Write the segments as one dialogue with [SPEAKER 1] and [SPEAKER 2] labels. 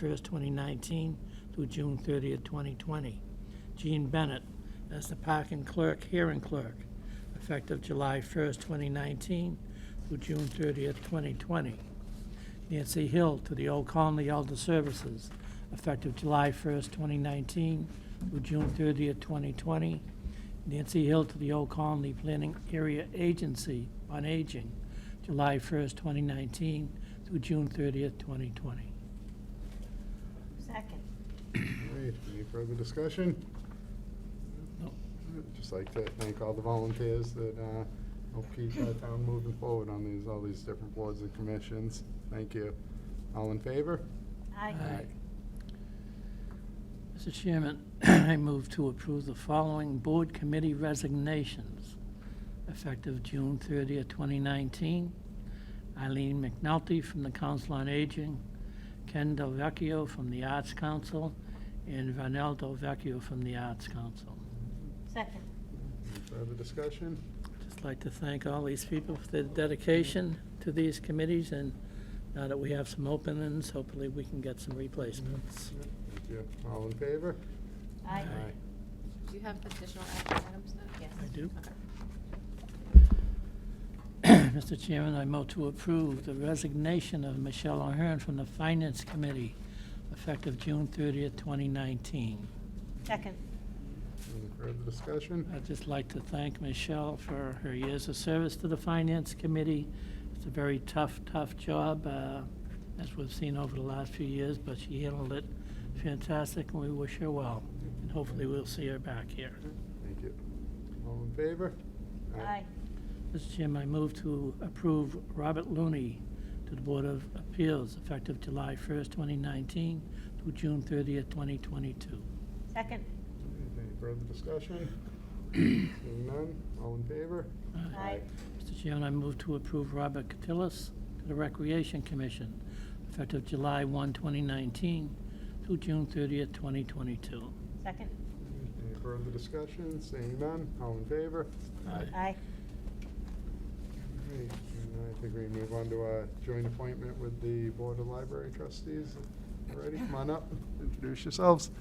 [SPEAKER 1] 1st, 2019 through June 30th, 2020. Jean Bennett as the parking clerk, hearing clerk, effective July 1st, 2019 through June 30th, 2020. Nancy Hill to the Old Colony Elder Services, effective July 1st, 2019 through June 30th, 2020. Nancy Hill to the Old Colony Planning Area Agency on Aging, July 1st, 2019 through June 30th, 2020.
[SPEAKER 2] Second.
[SPEAKER 3] All right, any further discussion?
[SPEAKER 1] No.
[SPEAKER 3] I'd Just like to thank all the volunteers that uh, help keep our town moving forward on these, all these different boards and commissions. Thank you. All in favor?
[SPEAKER 2] Aye.
[SPEAKER 1] Aye. Mr. Chairman, I move to approve the following board committee resignations effective June 30th, 2019. Eileen McNulty from the Council on Aging, Ken Del Vecchio from the Arts Council, and Vanel Del Vecchio from the Arts Council.
[SPEAKER 2] Second.
[SPEAKER 3] Any further discussion?
[SPEAKER 1] Just like to thank all these people for their dedication to these committees, and now that we have some openings, hopefully we can get some replacements.
[SPEAKER 3] Thank you. All in favor?
[SPEAKER 2] Aye.
[SPEAKER 4] Do you have additional action items then? Yes.
[SPEAKER 1] I do.
[SPEAKER 4] Okay.
[SPEAKER 1] Mr. Chairman, I move to approve the resignation of Michelle O'Hearn from the Finance Committee effective June 30th, 2019.
[SPEAKER 2] Second.
[SPEAKER 3] Any further discussion?
[SPEAKER 1] I'd just like to thank Michelle for her years of service to the Finance Committee. It's a very tough, tough job, uh, as we've seen over the last few years, but she handled it fantastic, and we wish her well. And hopefully, we'll see her back here.
[SPEAKER 3] Thank you. All in favor?
[SPEAKER 2] Aye.
[SPEAKER 1] Mr. Chairman, I move to approve Robert Looney to the Board of Appeals effective July 1st, 2019 through June 30th, 2022.
[SPEAKER 2] Second.
[SPEAKER 3] Any further discussion? Seeing none, all in favor?
[SPEAKER 2] Aye.
[SPEAKER 1] Mr. Chairman, I move to approve Robert Catillus to the Recreation Commission effective July 1, 2019 through June 30th, 2022.
[SPEAKER 2] Second.
[SPEAKER 3] Any further discussion? Seeing none, all in favor?
[SPEAKER 2] Aye.
[SPEAKER 3] All right, and I think we move on to a joint appointment with the Board of Library Trustees. Ready? Come on up, introduce yourselves.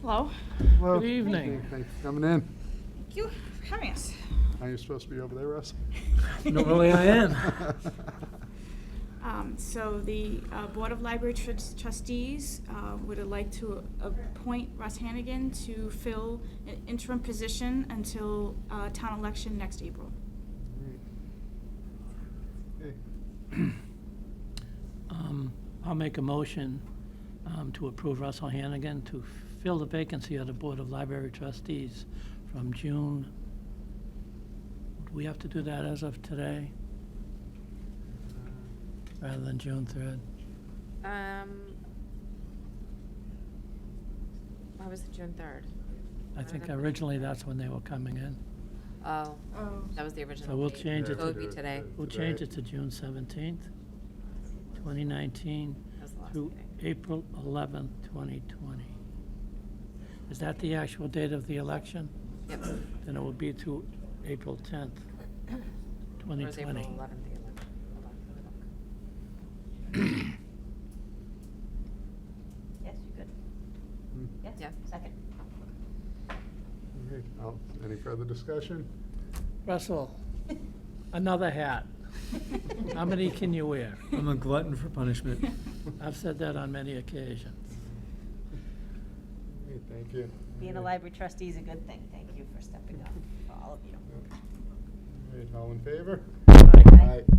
[SPEAKER 5] Hello.
[SPEAKER 3] Hello.
[SPEAKER 1] Good evening.
[SPEAKER 3] Thanks for coming in.
[SPEAKER 5] Thank you for having us.
[SPEAKER 3] Are you supposed to be over there, Russ?
[SPEAKER 1] Normally I am.
[SPEAKER 5] Um, So the uh, Board of Library Trus- Trustees uh, would like to appoint Russ Hannigan to fill an interim position until uh, town election next April.
[SPEAKER 3] Okay.
[SPEAKER 1] Um, I'll make a motion um, to approve Russell Hannigan to fill the vacancy on the Board of Library Trustees from June. Do we have to do that as of today, rather than June 3rd?
[SPEAKER 4] Um, why was it June third?
[SPEAKER 1] I think originally that's when they were coming in.
[SPEAKER 4] Oh,
[SPEAKER 5] Oh.
[SPEAKER 4] that was the original.
[SPEAKER 1] we'll
[SPEAKER 4] date.
[SPEAKER 1] change it
[SPEAKER 4] So it would
[SPEAKER 3] to-
[SPEAKER 4] be today.
[SPEAKER 1] We'll change it to June 17th, 2019
[SPEAKER 4] That was the last
[SPEAKER 1] through
[SPEAKER 4] meeting.
[SPEAKER 1] April 11th, 2020. Is that the actual date of the election?
[SPEAKER 4] Yep.
[SPEAKER 1] Then it will be to April 10th,
[SPEAKER 4] Or was
[SPEAKER 1] 2020.
[SPEAKER 4] April eleventh, the eleventh? Hold on, let me look.
[SPEAKER 2] Yes, you good.
[SPEAKER 3] Hmm.
[SPEAKER 2] Yes?
[SPEAKER 4] Yeah.
[SPEAKER 2] Second.
[SPEAKER 3] Okay, I'll- Any further discussion?
[SPEAKER 1] Russell, another hat. How many can you wear?
[SPEAKER 6] I'm a glutton for punishment.
[SPEAKER 1] I've said that on many occasions.
[SPEAKER 3] Okay, Thank you.
[SPEAKER 2] Being a
[SPEAKER 3] All right.
[SPEAKER 2] library trustee is a good thing. Thank you for stepping up, for all of you.
[SPEAKER 3] All right, All in favor?
[SPEAKER 2] Aye.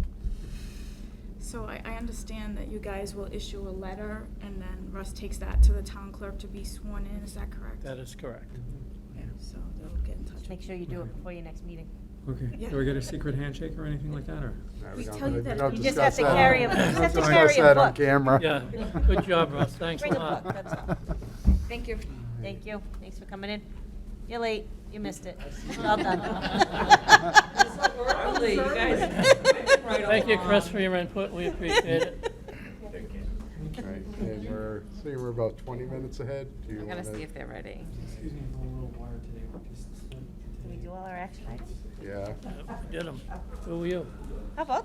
[SPEAKER 5] So I, I understand that you guys will issue a letter and then Russ takes that to the town clerk to be sworn in, is that correct?
[SPEAKER 1] That is correct.
[SPEAKER 5] Yeah, so they'll get in touch.
[SPEAKER 2] Just
[SPEAKER 5] with
[SPEAKER 2] make sure you do it before your next meeting.
[SPEAKER 6] Okay, do I get a secret handshake or anything like that, or?
[SPEAKER 3] No,
[SPEAKER 5] We
[SPEAKER 3] don't-
[SPEAKER 5] tell you that-
[SPEAKER 3] don't
[SPEAKER 5] You
[SPEAKER 2] just have
[SPEAKER 3] discuss
[SPEAKER 2] to
[SPEAKER 3] that.
[SPEAKER 6] carry a-
[SPEAKER 3] Don't
[SPEAKER 6] you just have to
[SPEAKER 3] discuss
[SPEAKER 2] carry a
[SPEAKER 3] that on
[SPEAKER 2] book.
[SPEAKER 3] camera.
[SPEAKER 1] Yeah, good job, Russ, thanks a
[SPEAKER 2] Bring a
[SPEAKER 1] lot.
[SPEAKER 2] book, that's all.
[SPEAKER 4] Thank you.
[SPEAKER 2] Thank you. Thanks for coming in. You're late. You missed it. Well done.
[SPEAKER 4] early, you guys.
[SPEAKER 1] Thank you, Chris, for your input, we appreciate it.
[SPEAKER 3] All right, And we're, see, we're about 20 minutes ahead. Do you
[SPEAKER 4] I'm gonna
[SPEAKER 3] wanna-
[SPEAKER 4] see if they're ready.
[SPEAKER 7] Excuse me, I'm a little wired today, we're just, today
[SPEAKER 1] Did we do all our action items?
[SPEAKER 8] Yeah.
[SPEAKER 1] Uh,
[SPEAKER 2] Yep, we Did them. Who were you?
[SPEAKER 1] How about